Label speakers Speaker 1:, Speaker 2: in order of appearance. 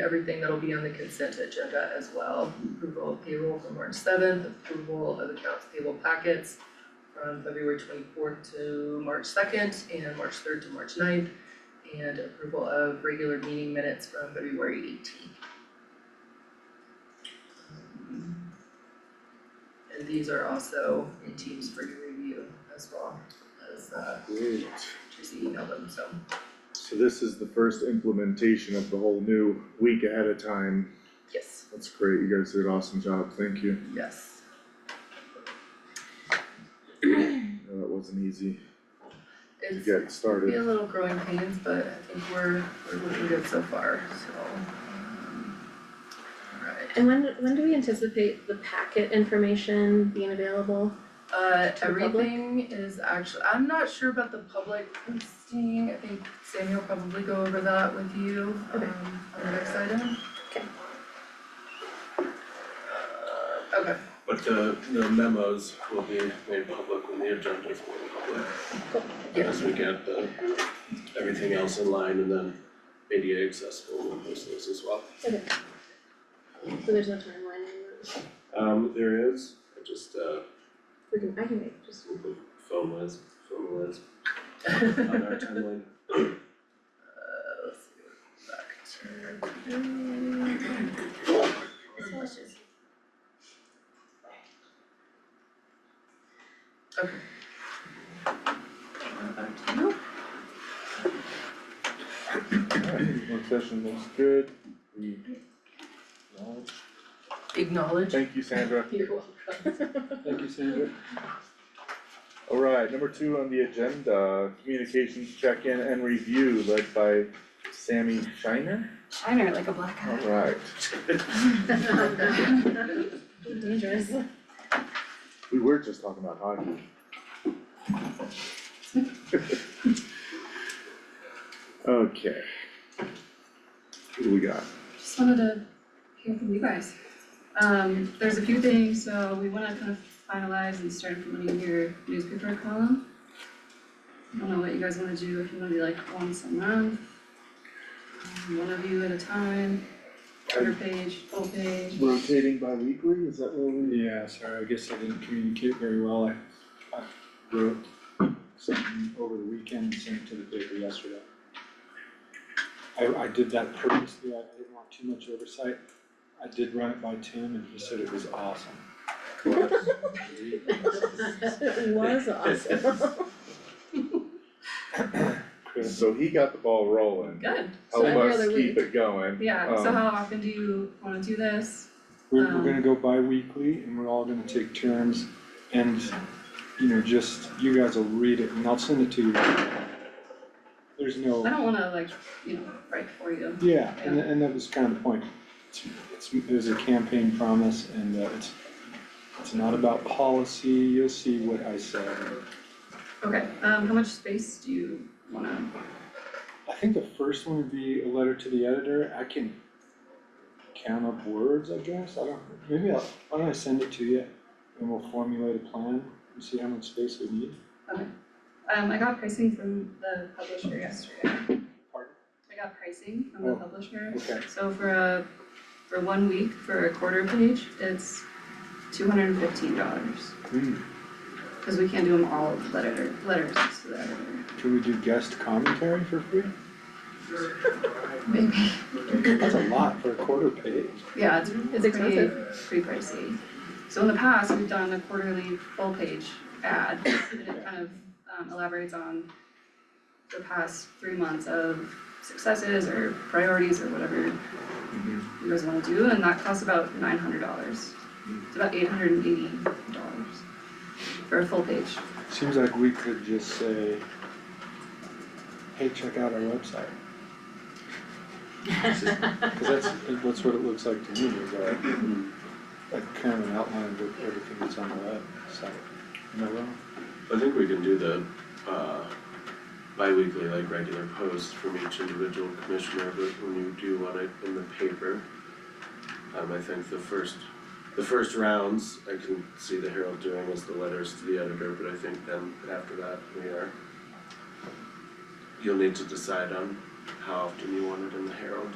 Speaker 1: everything that'll be on the consent agenda as well. Approval of payroll from March seventh, approval of accounts payable packets from February twenty-fourth to March second, and March third to March 9th, and approval of regular meeting minutes from February eighteenth. And these are also in Teams for your review as well, as uh
Speaker 2: Great.
Speaker 1: Tracy emailed them, so.
Speaker 2: So this is the first implementation of the whole new week ahead of time.
Speaker 1: Yes.
Speaker 2: That's great, you guys did an awesome job, thank you.
Speaker 1: Yes.
Speaker 2: No, That wasn't easy to
Speaker 1: It's
Speaker 2: get
Speaker 1: be a
Speaker 2: started.
Speaker 1: little growing pains, but I think we're we're looking good so far, so. um, Alright,
Speaker 3: And when, when do we anticipate the packet information being available?
Speaker 1: uh
Speaker 3: To the public?
Speaker 1: everything is actually, I'm not sure about the public posting, I think Samuel will probably go over that with you
Speaker 3: Okay.
Speaker 1: um on the next item.
Speaker 3: Okay.
Speaker 1: Uh, okay,
Speaker 4: But the the memos will be made public when the agenda is made public.
Speaker 1: Yeah.
Speaker 4: As we get the everything else in line and then ADA accessible and those things as well.
Speaker 3: Okay. So there's no timeline, on that.
Speaker 4: Um there is, I just uh
Speaker 3: we can, I can make just,
Speaker 4: phone Liz, phone Liz on our timeline.
Speaker 1: Uh, let's see, what back to. Okay. Uh, Back to you.
Speaker 2: Alright, Work session looks good. We acknowledge.
Speaker 1: Acknowledge.
Speaker 2: Thank you, Sandra.
Speaker 1: You're welcome.
Speaker 4: Thank you, Sandra.
Speaker 2: Alright, number two on the agenda, communications check-in and review led by Sammy Shiner.
Speaker 5: Shiner like a black eye.
Speaker 2: Alright,
Speaker 3: dangerous.
Speaker 2: we were just talking about hockey. Okay. Who do we got?
Speaker 5: Just wanted to hear from you guys. Um, there's a few things, so we wanna kind of finalize and start implementing your newspaper column. I don't know what you guys wanna do, if you wanna do like once a month, um, one of you at a time, quarter page, full page.
Speaker 2: Rotating bi-weekly, is that what we?
Speaker 6: Yeah, uh, sorry, I guess I didn't communicate very well. I, I wrote something over the weekend and sent it to the paper yesterday. I, I did that purposely, I didn't want too much oversight. I did run it by Tim and he said it was awesome.
Speaker 3: It was awesome.
Speaker 6: Chris,
Speaker 2: So he got the ball rolling,
Speaker 5: Good,
Speaker 2: help
Speaker 5: So every
Speaker 2: us
Speaker 5: other
Speaker 2: keep it going.
Speaker 5: yeah, so
Speaker 2: Um,
Speaker 5: how often do you wanna do this?
Speaker 6: we're, we're gonna go bi-weekly and we're all gonna take turns and, you know, just, you guys will read it and I'll send it to you. There's no.
Speaker 5: I don't wanna like, you know, write for you.
Speaker 6: Yeah, and and that was kind of the point. It's it's it was a campaign promise and uh, it's it's not about policy, you'll see what I said.
Speaker 5: Okay, um, how much space do you wanna,
Speaker 6: I think the first one would be a letter to the editor. I can count up words, I guess. I don't, maybe I'll, why don't I send it to you? And we'll formulate a plan and see how much space we need.
Speaker 5: um, I got pricing from the publisher yesterday.
Speaker 6: Pardon?
Speaker 5: I got pricing from the
Speaker 6: Oh.
Speaker 5: publisher,
Speaker 6: Okay,
Speaker 5: so for a, for one week, for a quarter page, it's two hundred and fifteen dollars.
Speaker 6: hmm,
Speaker 5: Cause we can't do them all with letter, letters to the editor.
Speaker 6: can we do guest commentary for free?
Speaker 5: Maybe.
Speaker 6: That's a lot for a quarter page.
Speaker 5: Yeah, it's,
Speaker 3: It's
Speaker 5: it's pretty,
Speaker 3: expensive.
Speaker 5: pretty pricey. So in the past, we've done a quarterly full page ad, and it kind of um elaborates on the past three months of successes or priorities or whatever you guys wanna do, and that costs about nine hundred dollars. It's about eight hundred and eighty dollars for a full page.
Speaker 6: Seems like we could just say, hey, check out our website. Cause that's, that's what it looks like to me, is like, like kind of an outline of everything that's on the website. Am I wrong?
Speaker 4: I think we can do the uh bi-weekly, like regular posts from each individual commissioner, but when you do want it in the paper. Um I think the first, the first rounds, I can see the Herald doing is the letters to the editor, but I think then after that, we are. You'll need to decide on how often you want it in the Herald.